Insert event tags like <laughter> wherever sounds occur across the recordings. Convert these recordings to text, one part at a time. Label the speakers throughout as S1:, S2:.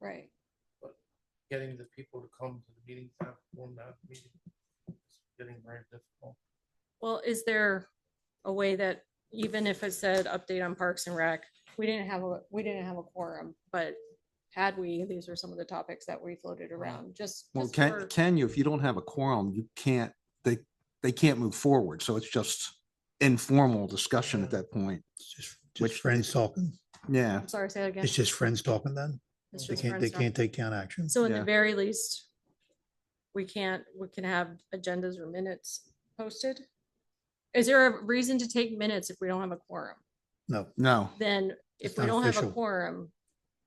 S1: Right.
S2: getting the people to come to the meetings, that will not meeting. It's Getting very difficult.
S1: Well, is there a way that even if it said update on Parks and Rec, we didn't have a, we didn't have a quorum, but had we, these are some of the topics that we floated around, just.
S3: Well,
S1: just
S3: can,
S1: for-
S3: can you, if you don't have a quorum, you can't, they, they can't move forward. So it's just informal discussion at that point.
S4: It's just,
S3: Which-
S4: just friends talking.
S3: Yeah,
S1: I'm sorry, say that again.
S4: It's just friends talking then.
S1: It's
S4: They
S1: just
S4: can't, they
S1: friends talking.
S4: can't take town action.
S1: So in the
S3: Yeah.
S1: very least, we can't, we can have agendas or minutes posted. Is there a reason to take minutes if we don't have a quorum?
S4: No,
S3: no,
S1: Then if
S4: It's
S1: we
S4: not
S1: don't have a
S4: official.
S1: quorum,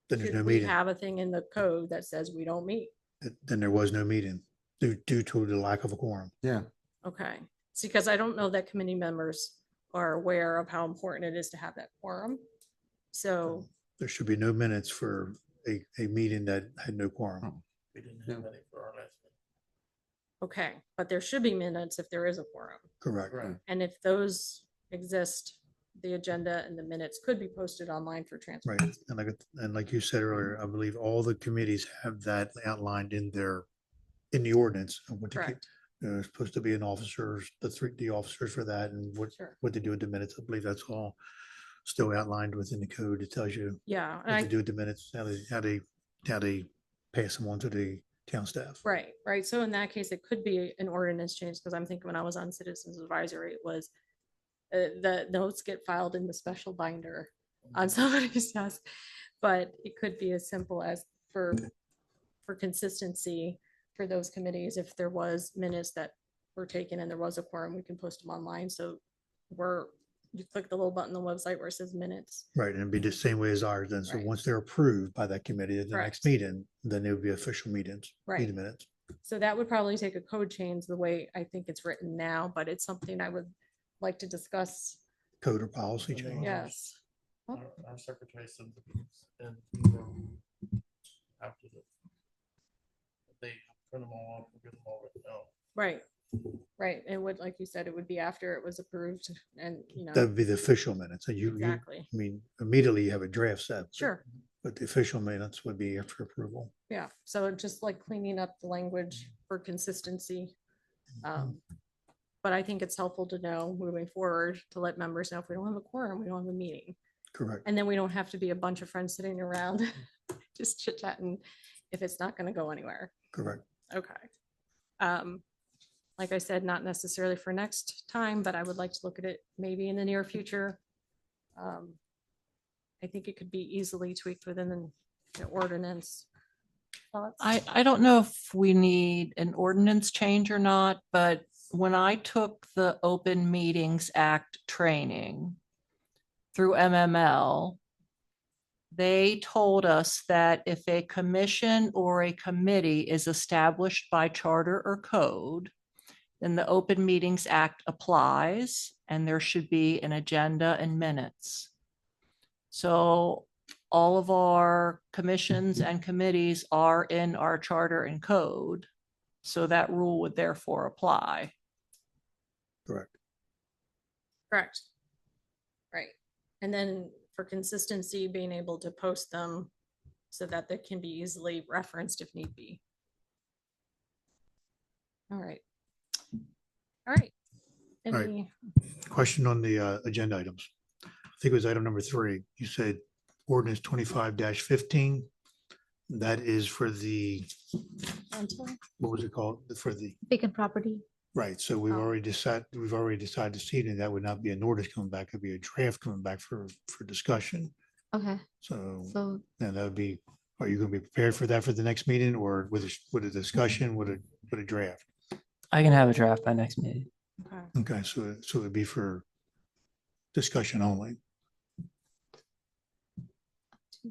S4: then there's no
S1: should we
S4: meeting.
S1: have a thing in the code that says we don't meet?
S4: Th- Then there was no meeting due, due to the lack of a quorum.
S3: yeah.
S1: Okay, it's because I don't know that committee members are aware of how important it is to have that quorum. So,
S4: There should be no minutes for a, a meeting that had no quorum.
S2: We didn't have any for our last.
S1: okay, but there should be minutes if there is a quorum.
S4: Correct.
S2: Right.
S1: And if those exist, the agenda and the minutes could be posted online for transfer.
S4: Right. And like, and like you said earlier, I believe all the committees have that outlined in their, in the ordinance. of what to keep.
S1: Correct,
S4: There's supposed to be an officers, the three, the officers for that and what,
S1: sure.
S4: what they do with the minutes. I believe that's all still outlined within the code. It tells you
S1: Yeah, and
S4: what to
S1: I,
S4: do with the minutes, how they, how they, how they pass them on to the town staff.
S1: right, right. So in that case, it could be an ordinance change because I'm thinking when I was on Citizens Advisory, it was uh, the notes get filed in the special binder on <laughs> somebody's desk. But it could be as simple as for, for consistency for those committees, if there was minutes that were taken and there was a quorum, we can post them online. So we're, you click the little button on the website where it says minutes.
S4: Right, and it'd be the same way as ours, then, so
S1: Right.
S4: once they're approved by that committee at the
S1: Correct.
S4: next meeting, then it would be official meetings.
S1: Right.
S4: meeting Minutes,
S1: So that would probably take a code change the way I think it's written now, but it's something I would like to discuss.
S4: code or policy
S1: Mm-hmm.
S2: And they-
S4: change.
S1: Yes.
S2: Our our secretary sends the minutes and email after the. They print them all up, and get them all written out.
S1: Right, right. And would, like you said, it would be after it was approved and, you
S4: That
S1: know,
S4: would be the official minutes, and you, you, I
S1: exactly.
S4: mean, immediately you have a draft set. but-
S1: Sure.
S4: But the official minutes would be after approval.
S1: Yeah, so just like cleaning up the language for consistency. um, But I think it's helpful to know moving forward to let members know if we don't have a quorum, we don't have a meeting.
S4: Correct,
S1: And then we don't have to be a bunch of friends sitting around <laughs> just chit chatting if it's not going to go anywhere.
S4: correct.
S1: Okay. Um, Like I said, not necessarily for next time, but I would like to look at it maybe in the near future. Um, I think it could be easily tweaked within the ordinance. Thoughts?
S5: I, I don't know if we need an ordinance change or not, but when I took the Open Meetings Act training through MML, they told us that if a commission or a committee is established by charter or code, then the Open Meetings Act applies and there should be an agenda and minutes. So all of our commissions and committees are in our charter and code. So that rule would therefore apply.
S1: Correct. Right. And then for consistency, being able to post them so that they can be easily referenced if need be. All right. All right.
S4: right.
S1: Any-
S4: Question on the uh, agenda items. I think it was item number three. You said ordinance twenty-five fifteen. That is for the,
S1: Rental?
S4: what was it called? For the
S6: vacant property.
S4: Right, so we've
S1: Oh.
S4: already decided, we've already decided to see that that would not be an ordinance coming back, it'd be a draft coming back for, for discussion.
S6: Okay,
S4: So
S6: so
S4: then that would be, are you gonna be prepared for that for the next meeting or with, a with a discussion, with a, with a draft?
S7: I can have a draft by next meeting.
S1: Okay.
S4: Okay, so, so it'd be for discussion only.
S6: to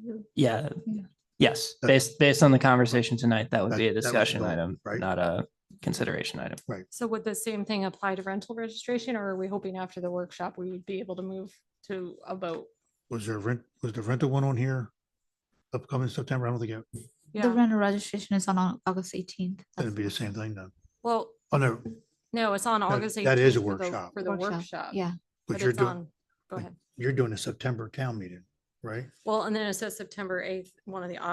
S6: you.
S7: Yeah.
S6: Yeah.
S7: Yes,
S4: That-
S7: based based on the conversation tonight, that would
S4: That-
S7: be
S4: that
S7: a
S4: was the
S7: discussion
S4: goal,
S7: item,
S4: right?
S7: not a consideration item.
S1: So would the same thing apply to rental registration or are we hoping after the workshop, we would be able to move to a vote?
S4: Was there rent, was the rental one on here? Upcoming September, I don't think it,
S6: the
S1: Yeah,
S6: rental registration is on Au- August eighteenth.
S4: that'd be the same thing then.
S1: well,
S4: Oh, no,
S1: no, it's on August.
S4: that is a
S1: 18th for the-
S4: workshop.
S1: For the workshop.
S6: Yeah,
S4: but
S1: But
S4: you're
S1: it's
S4: doing,
S1: on, go ahead.
S4: you're doing a September town meeting, right?
S1: Well, and then it says September eighth, one of the